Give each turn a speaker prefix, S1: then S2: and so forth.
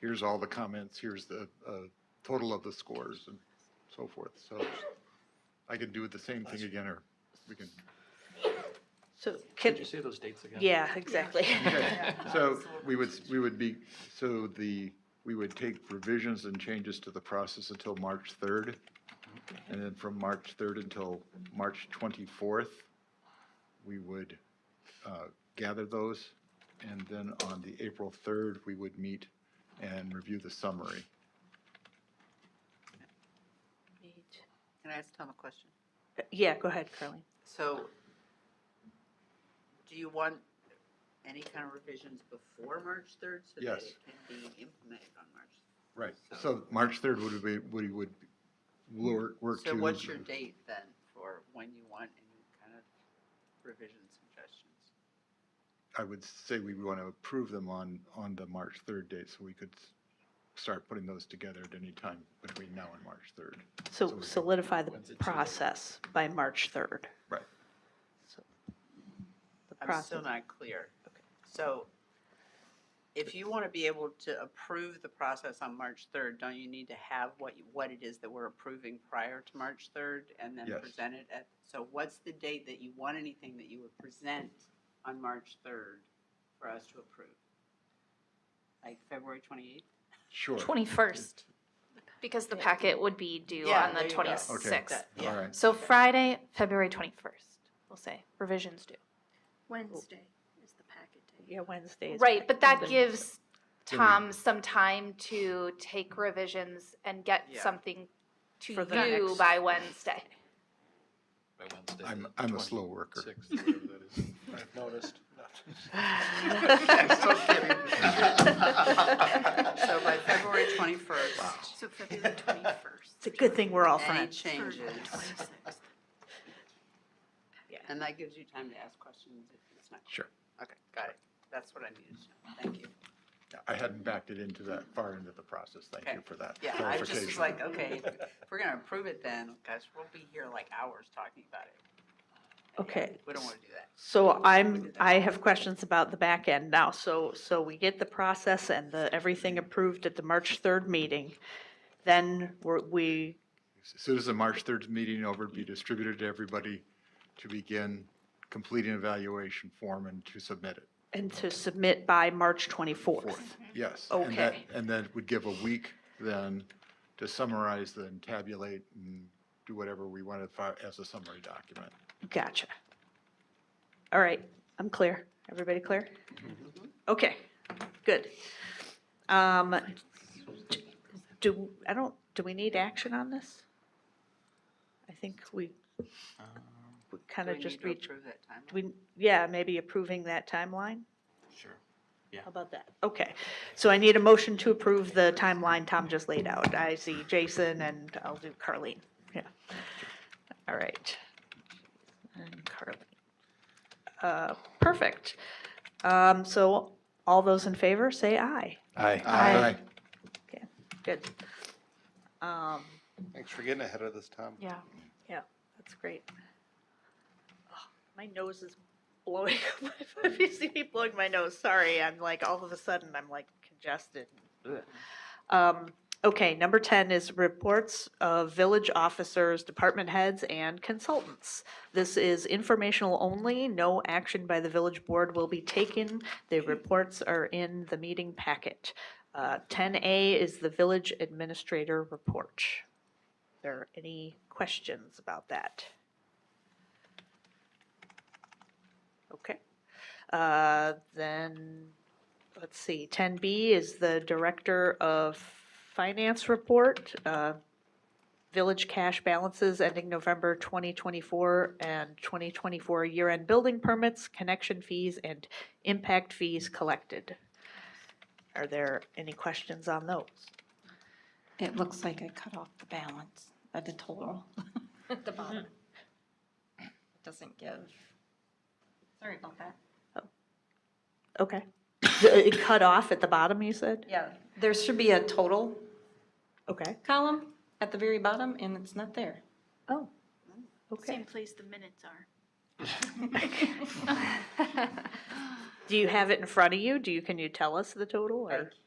S1: here's all the comments, here's the uh, total of the scores and so forth. So I can do the same thing again, or we can.
S2: So
S3: Could
S2: can,
S3: you say those dates again?
S2: yeah, exactly.
S1: So we would, we would be, so the, we would take revisions and changes to the process until March 3rd. And then from March 3rd until March 24th, we would uh, gather those. And then on the April 3rd, we would meet and review the summary.
S4: Can I ask Tom a question?
S2: Yeah, go ahead, Carly.
S4: So, do you want any kind of revisions before March 3rd? So that
S1: Yes.
S4: it can be implemented on March?
S1: Right. So March 3rd would be, would, would work work to.
S4: So what's your date then for when you want any kind of revision suggestions?
S1: I would say we want to approve them on, on the March 3rd date, so we could s- start putting those together at any time between now and March 3rd.
S2: So solidify the process by March 3rd.
S1: Right.
S2: The
S4: I'm still
S2: process,
S4: not clear.
S2: Okay.
S4: So, if you want to be able to approve the process on March 3rd, don't you need to have what, you- what it is that we're approving prior to March 3rd? And then
S1: Yes.
S4: present it at, so what's the date that you want anything that you would present on March 3rd for us to approve? Like February 28th?
S1: Sure.
S5: 21st, because the packet would be due
S4: Yeah,
S5: on the
S4: there you go. Okay.
S1: Okay,
S5: 26th.
S1: all
S4: Yeah.
S1: right.
S5: So Friday, February 21st, we'll say, revisions due.
S6: Wednesday is the packet day.
S2: yeah, Wednesdays.
S5: Right, but that
S2: Then-
S5: gives
S1: Then we-
S5: Tom some time to take revisions and get
S4: Yeah.
S5: something to
S2: For the
S5: you
S2: next-
S5: by Wednesday.
S3: By Wednesday.
S1: I'm-
S3: the
S1: I'm a slow worker.
S3: 26th, whatever that is. I've noticed.
S4: So by February 21st,
S6: So February twenty-first.
S2: It's a good thing we're all
S4: any
S2: fine.
S4: changes,
S6: Twenty-sixth.
S4: and that gives you time to ask questions if it's not.
S1: Sure.
S4: Okay, got it. That's what I needed to know. Thank you.
S1: I hadn't backed it into that, far into the process. Thank you
S4: Okay.
S1: for that
S4: Yeah, I just was
S1: clarification.
S4: like, okay, if we're gonna approve it then, guys, we'll be here like hours talking about it.
S2: Okay.
S4: We don't wanna do that.
S2: So I'm, I have questions about the back end now. So, so we get the process and the, everything approved at the March 3rd meeting. Then we're, we,
S1: As soon as the March 3rd meeting over, it'd be distributed to everybody to begin completing evaluation form and to submit it.
S2: and to submit by March 24th.
S1: Yes. and that-
S2: Okay.
S1: And then it would give a week then to summarize, then tabulate and do whatever we want to file as a summary document.
S2: Gotcha. All right, I'm clear. Everybody clear? Okay, good. Um, do, I don't, do we need action on this? I think we, we kind
S4: Do
S2: of
S4: we need
S2: just
S4: to
S2: reached,
S4: approve that timeline?
S2: we, yeah, maybe approving that timeline?
S3: Sure.
S2: How about that? Okay, so I need a motion to approve the timeline Tom just laid out. I see Jason and I'll do Carlene, yeah. All right. And Carlene. Uh, Perfect. Um, So all those in favor, say aye.
S7: Aye.
S5: Aye.
S2: Okay, good. Um,
S7: Thanks for getting ahead of this, Tom.
S5: Yeah.
S2: Yeah, that's great. Oh, My nose is blowing, if you see me blowing my nose, sorry, I'm like, all of a sudden, I'm like congested.
S3: Ugh.
S2: Um, Okay, number 10 is reports of village officers, department heads, and consultants. This is informational only, no action by the village board will be taken. The reports are in the meeting packet. Uh, 10A is the village administrator report there any questions about that? Okay, Uh, then, let's see, 10B is the Director of Finance Report, uh, Village Cash Balances ending November 2024 and 2024 year-end building permits, connection fees, and impact fees collected. Are there any questions on those?
S8: It looks like I cut off the balance of the total. Mm-hmm. At the bottom. It doesn't give. Sorry about that.
S2: Okay. It cut off at the bottom, you said?
S8: Yeah, there should be a total
S2: Okay.
S8: column at the very bottom, and it's not there.
S2: Oh,
S6: Same
S2: okay.
S6: place the minutes are.
S2: Do you have it in front of you? Do you, can you tell us the total
S8: I
S2: or?